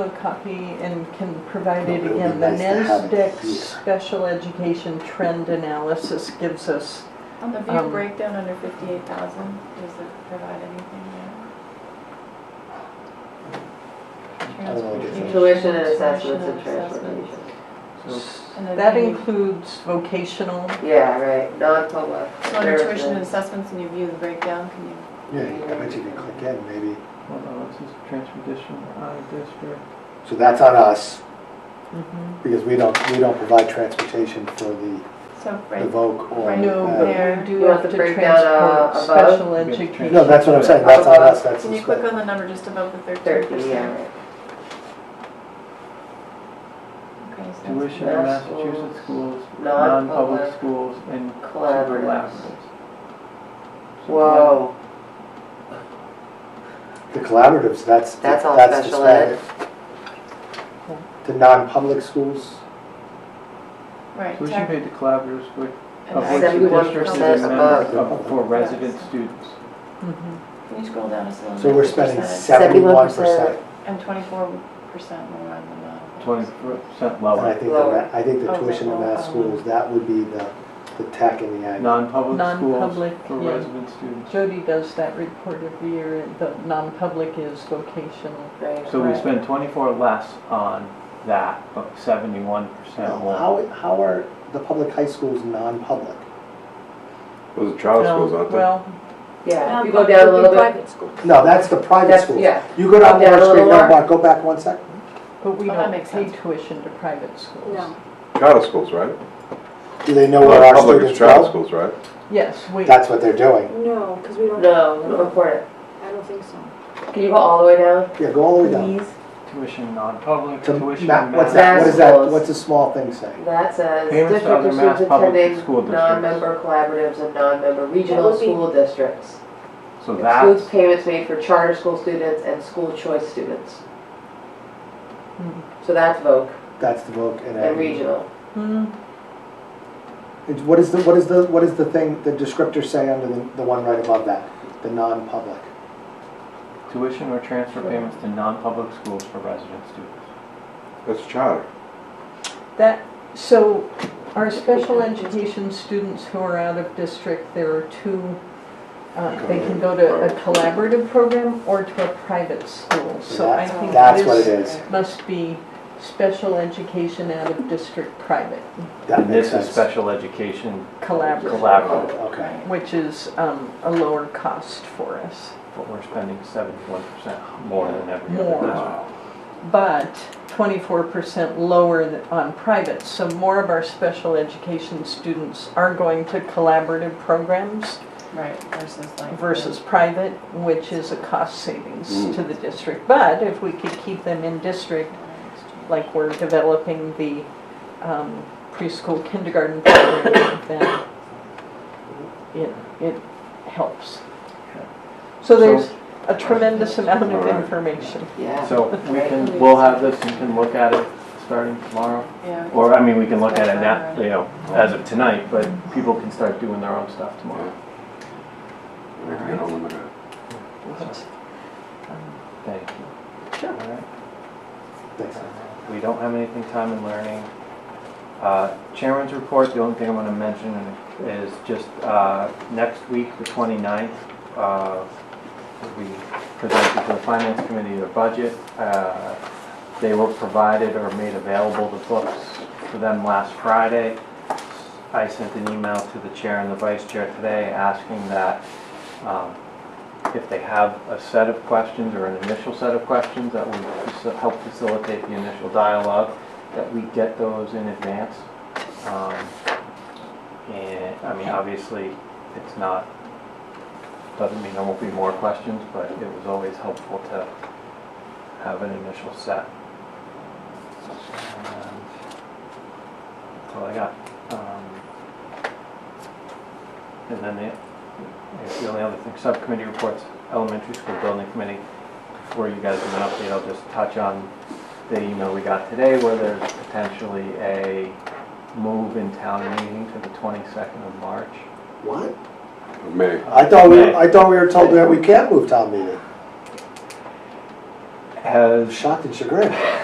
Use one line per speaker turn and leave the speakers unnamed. a copy and can provide it
It would be
again. The
nice to have it
NASDAQ
here.
Special Education Trend Analysis gives us,
On the
Um,
view breakdown under fifty-eight thousand, does it provide anything there?
I don't know what you're saying.
Tuition and assessments and transportation.
And then
that
can you-
includes vocational.
Yeah, right, non-public.
So under tuition and assessments, and you view the breakdown, can you,
Yeah, I bet you can click in, maybe.
Hold on, this is transportation out of district.
So that's on us,
Mm-hmm.
Mhm.
because we don't, we don't provide transportation for the
so
the
right,
voc or. uh,
Right.
No,
that.
but
There.
we do
You want
have to
the breakdown,
transport
uh, above?
special
Okay.
education.
No, that's what I'm saying, that's on us, that's
can
the
you click
school.
on the number just above the thirteen
Thirty, yeah,
percent?
right.
Okay, so that's-
Tuition in Massachusetts schools, non-public
Non-public
schools, and
collaboratives.
collaboratives.
Whoa,
The collaboratives, that's, the-
That's all
that's the
special ed.
static. The non-public schools,
Right,
Tuition
tech
paid to collaboratives, which,
and
of
tech.
which the
Seventy-one
district is
percent
a
above.
member of for resident students.
Mhm.
Can you scroll down just a little?
so
bit?
we're spending
50%.
seventy-one
71%.
percent.
And twenty-four percent more on the uh, non.
Twenty percent
And I
lower.
think, the ma- I think the
Lower.
tuition in
Oh,
mass
oh, oh.
schools, that would be the, the tech and the ag.
Non-public schools
Non-public,
for
yeah.
resident students.
Jody does that report every year, and the non-public is vocational.
right.
So we
Right.
spend twenty-four less on that, but seventy-one
Now,
percent more.
How, how are the public high schools non-public?
Those are child schools, aren't they?
Well,
Yeah, if you go down a little bit.
No, that's the private
That's-
schools.
yeah.
You go down
Down a
Water Street,
little
no,
more.
Mark, go back one sec.
but we
Oh, that
don't
makes
pay
sense.
tuition to private schools.
No.
Charter schools, right?
Do they know where
Oh, Well,
our
Public is
students
charter
go?
schools, right?
Yes, we,
That's what they're doing.
No, because we don't,
No, don't report it.
I don't think so.
Can you go all the way down,
Yeah, go all the way down.
please?
Tuition non-public,
To
tuition
ma-
in
What's
Mass.
that, what is that,
Schools.
what's a small thing saying?
That says
Payments to
district
other
or
Mass
students
public
attending
school districts.
non-member collaboratives and non-member regional
would be-
school districts.
So
Excludes
that's,
payments made for charter school students and school choice students.
Hmm.
So that's voc
That's the book and
and
everything.
regional.
Hmm,
It's- What is the, what is the, what is the thing, the descriptor say under the, the one right above that? The non-public.
tuition or transfer payments to non-public schools for resident students.
That's charter.
that, so our special education students who are out of district, there are two, uh, they can go to a collaborative program or to a private school.
So
So I
that's-
think
that's what it
this
is.
must be special education out of district private
That
And
makes
this is
sense.
special education
collaborative,
collaborative,
Okay.
which is um, a lower cost for us.
but we're spending seventy-one percent more than every
More.
other district.
but 24% lower th- on private. So more of our special education students are going to collaborative programs
Right, versus like.
versus private, which is a cost savings
Mm.
to the district. But if we could keep them in district, like we're developing the um, preschool kindergarten program, then it, it helps. So there's a tremendous amount of
Alright.
information.
Yeah.
So we can, we'll have this, you can look at it starting tomorrow,
Yeah. we
or,
can-
I mean, we can look at it now,
Start
you know, as of tonight, but people can start doing their own stuff tomorrow.
They can get home and look at it.
So, Thank you.
Sure.
All right.
Thanks.
We don't have anything time in learning. Uh, Chairman's report, the only thing I'm going to mention is just uh, next week, the 29th, uh, we presented to the Finance Committee their budget. Uh, They were provided or made available the books to them last Friday. I sent an email to the chair and the vice chair today asking that um, if they have a set of questions or an initial set of questions that would faci- help facilitate the initial dialogue, that we get those in advance. Um, And, I mean, obviously, it's not, doesn't mean there won't be more questions, but it was always helpful to have an initial set. And That's all I got. Um, And then the it's the only other thing, subcommittee reports, elementary school building committee. Before you guys give an update, I'll just touch on the email we got today where there's potentially a move in town meeting to the 22nd of March.
What?
Of May.
I thought we, I thought we were told that we can't move town meeting.
has
Shocked and chagrined.